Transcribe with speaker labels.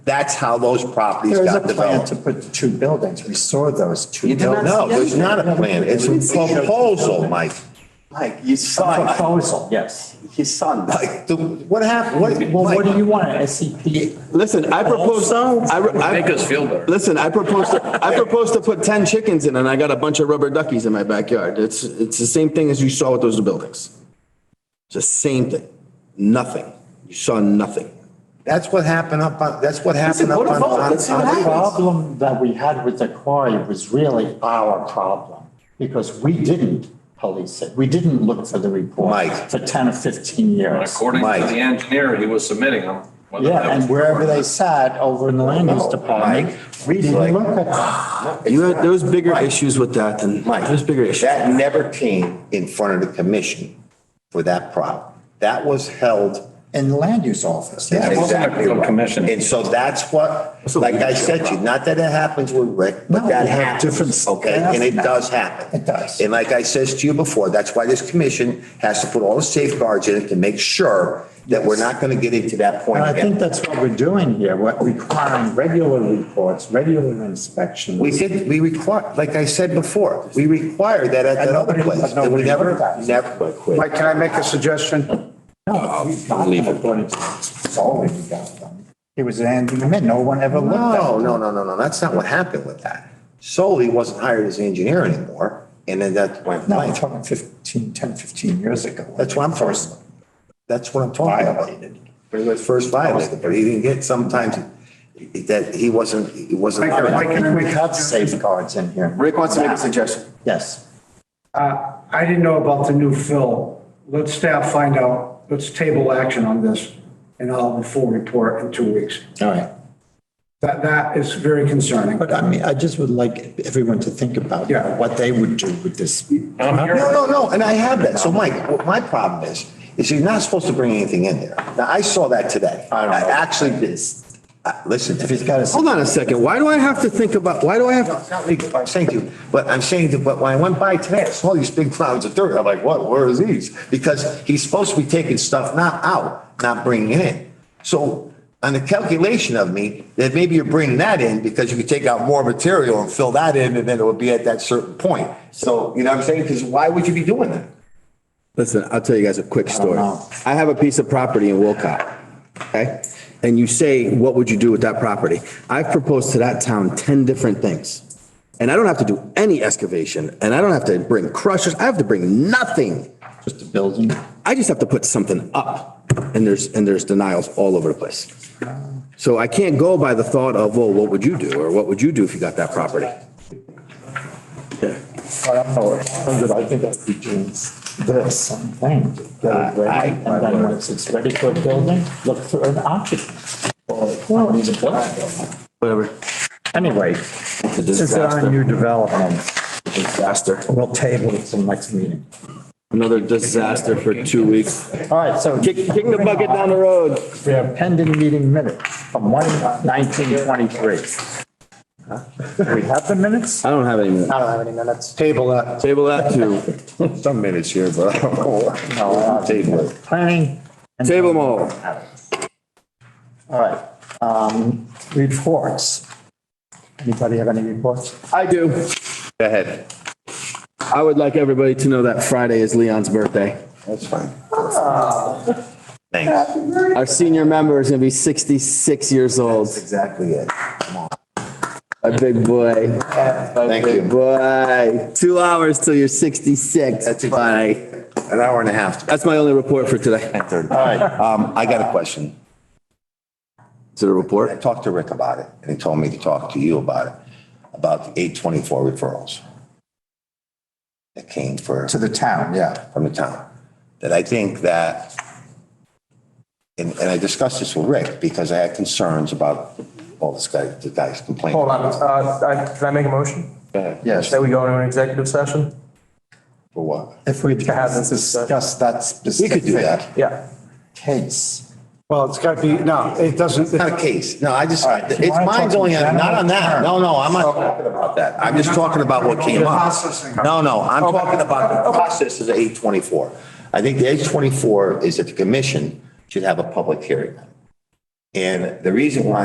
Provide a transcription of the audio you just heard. Speaker 1: That's how those properties
Speaker 2: There is a
Speaker 1: got
Speaker 2: plan
Speaker 1: developed.
Speaker 2: to put two buildings. We saw those two
Speaker 3: You did not
Speaker 1: No,
Speaker 2: buildings.
Speaker 1: there's not a plan. It's a proposal, Mike.
Speaker 3: Mike, you saw,
Speaker 2: Proposal, yes.
Speaker 3: you saw,
Speaker 1: Like, the- what happened? What,
Speaker 2: Well, what do
Speaker 1: Mike,
Speaker 2: you want, a SCP?
Speaker 4: Listen, I proposed, I,
Speaker 5: Make
Speaker 4: I,
Speaker 5: us feel better.
Speaker 4: listen, I proposed, I proposed to put 10 chickens in and I got a bunch of rubber duckies in my backyard. It's, it's the same thing as you saw with those buildings. It's the same thing. Nothing. You saw nothing.
Speaker 1: that's what happened up on, that's what happened up
Speaker 3: go to
Speaker 1: on,
Speaker 3: vote.
Speaker 1: on,
Speaker 3: Let's see what
Speaker 1: on-
Speaker 2: The
Speaker 3: happens.
Speaker 2: problem that we had with the quarry was really our problem because we didn't police it. We didn't look for the report
Speaker 1: Mike.
Speaker 2: for 10 or 15 years.
Speaker 5: According to
Speaker 1: Mike.
Speaker 5: the engineer, he was submitting them. whether that
Speaker 2: Yeah,
Speaker 5: was-
Speaker 2: and wherever they sat over in the land use department, we didn't look at them.
Speaker 4: You had, there was bigger issues with that than,
Speaker 1: Mike,
Speaker 4: there's bigger issues.
Speaker 1: that never came in front of the commission for that problem. That was held
Speaker 2: in the land use office.
Speaker 1: That's
Speaker 2: Yeah.
Speaker 1: exactly
Speaker 5: real
Speaker 1: right.
Speaker 5: commission.
Speaker 1: And so that's what, like I said to you, not that it happens with Rick, but
Speaker 2: No,
Speaker 1: that
Speaker 2: we have
Speaker 1: happens.
Speaker 2: different-
Speaker 1: Okay, and it does happen.
Speaker 2: It does.
Speaker 1: And like I says to you before, that's why this commission has to put all the safeguards in it to make sure that we're not going to get into that point
Speaker 2: And I think
Speaker 1: again.
Speaker 2: that's what we're doing here, we're requiring regular reports, regular inspections.
Speaker 1: We did, we require, like I said before, we require that at that other
Speaker 2: nobody-
Speaker 1: place.
Speaker 2: but
Speaker 1: And we
Speaker 2: nobody
Speaker 1: never,
Speaker 2: did that.
Speaker 1: never quit.
Speaker 6: Mike, can I make a suggestion?
Speaker 2: No, we've got them according to solely we got them. He was handing them in, no one ever looked at
Speaker 1: No,
Speaker 2: them.
Speaker 1: no, no, no, no. That's not what happened with that. Solely wasn't hired as an engineer anymore. And then that went
Speaker 2: No, I'm
Speaker 1: blank.
Speaker 2: talking 15, 10, 15 years ago.
Speaker 1: That's what I'm
Speaker 2: First
Speaker 1: That's what I'm talking about.
Speaker 2: violated.
Speaker 1: But he was first violated, but he didn't get sometimes that he wasn't, he wasn't.
Speaker 6: Mike, Mike, can I
Speaker 2: We
Speaker 6: make a
Speaker 2: have
Speaker 6: suggestion?
Speaker 2: safeguards in here.
Speaker 4: Rick wants to make a suggestion.
Speaker 2: Yes.
Speaker 6: Uh, I didn't know about the new fill. Let staff find out. Let's table action on this and I'll have a full report in two weeks.
Speaker 2: All right.
Speaker 6: That, that is very concerning.
Speaker 2: But I mean, I just would like everyone to think about you know,
Speaker 6: Yeah.
Speaker 2: what they would do with this.
Speaker 5: I'm here.
Speaker 1: No, no, no, and I have that. So Mike, what my problem is, is you're not supposed to bring anything in there. Now, I saw that today. I actually did. Uh, Listen,
Speaker 2: If he's got a.
Speaker 4: Hold on a second. Why do I have to think about, why do I have to?
Speaker 1: it's not legal, what I'm saying to you, but I'm saying that, but when I went by today, I saw these big clouds of dirt. I'm like, what, where are these? Because he's supposed to be taking stuff not out, not bringing it in. So on the calculation of me, that maybe you're bringing that in because you could take out more material and fill that in and then it would be at that certain point. So, you know what I'm saying? Because why would you be doing that?
Speaker 4: Listen, I'll tell you guys a quick story.
Speaker 2: know.
Speaker 4: I have a piece of property in Wilcott, okay? And you say, what would you do with that property? I've proposed to that town 10 different things. And I don't have to do any excavation and I don't have to bring crushers. I have to bring nothing.
Speaker 2: Just a building.
Speaker 4: I just have to put something up and there's, and there's denials all over the place. So I can't go by the thought of, well, what would you do? Or what would you do if you got that property?
Speaker 2: I don't know, I think that's between this something. And then once it's ready for a building, look for an occupant. Well, he's a building.
Speaker 4: Whatever.
Speaker 2: Anyway, since there are new developments,
Speaker 4: Disaster.
Speaker 2: we'll table it till next meeting.
Speaker 4: Another disaster for two weeks.
Speaker 2: All right, so.
Speaker 4: Kicking the bucket down the road.
Speaker 2: We have pending meeting minutes from one nineteen twenty-three. We have the minutes?
Speaker 4: I don't have any minutes.
Speaker 2: I don't have any minutes. Table that.
Speaker 4: Table that to
Speaker 1: Some minutes here, but I don't know.
Speaker 2: No,
Speaker 1: Table it.
Speaker 2: planning. and-
Speaker 4: table them all.
Speaker 2: All right, um, reports. Anybody have any reports?
Speaker 4: I do. Go ahead. I would like everybody to know that Friday is Leon's birthday.
Speaker 1: That's fine.
Speaker 4: Our senior member is gonna be sixty-six years old.
Speaker 1: Exactly it.
Speaker 4: A big boy.
Speaker 1: Thank
Speaker 4: Big
Speaker 1: you.
Speaker 4: boy. Two hours till you're sixty-six. Bye.
Speaker 1: An hour and a half.
Speaker 4: That's my only report for today.
Speaker 1: Um, I got a question.
Speaker 4: Is it a
Speaker 1: I
Speaker 4: report?
Speaker 1: talked to Rick about it, and he told me to talk to you about it, about the eight twenty-four referrals that came for,
Speaker 2: To the town, yeah.
Speaker 1: from the town. That I think that, and, and I discussed this with Rick, because I had concerns about, all this guy, the guy's complaining.
Speaker 7: Hold on, uh, I- can I make a motion?
Speaker 2: Yes.
Speaker 7: That we go into an executive session?
Speaker 1: For what?
Speaker 2: If we
Speaker 7: have this
Speaker 2: discuss that
Speaker 1: We could do
Speaker 2: specific
Speaker 1: that.
Speaker 7: Yeah.
Speaker 2: case.
Speaker 6: Well, it's got to be, no, it doesn't.
Speaker 1: Not a case. No, I just,
Speaker 2: right,
Speaker 1: it's
Speaker 2: you wanna
Speaker 1: mine's
Speaker 2: talk
Speaker 1: only, on-
Speaker 2: in
Speaker 1: not on that. No,
Speaker 2: general
Speaker 1: no, I'm not talking about that. I'm just talking about what came up.
Speaker 6: Processing.
Speaker 1: No, no, I'm talking about the process of the eight twenty-four. I think the eight twenty-four is that the commission should have a public hearing. And the reason why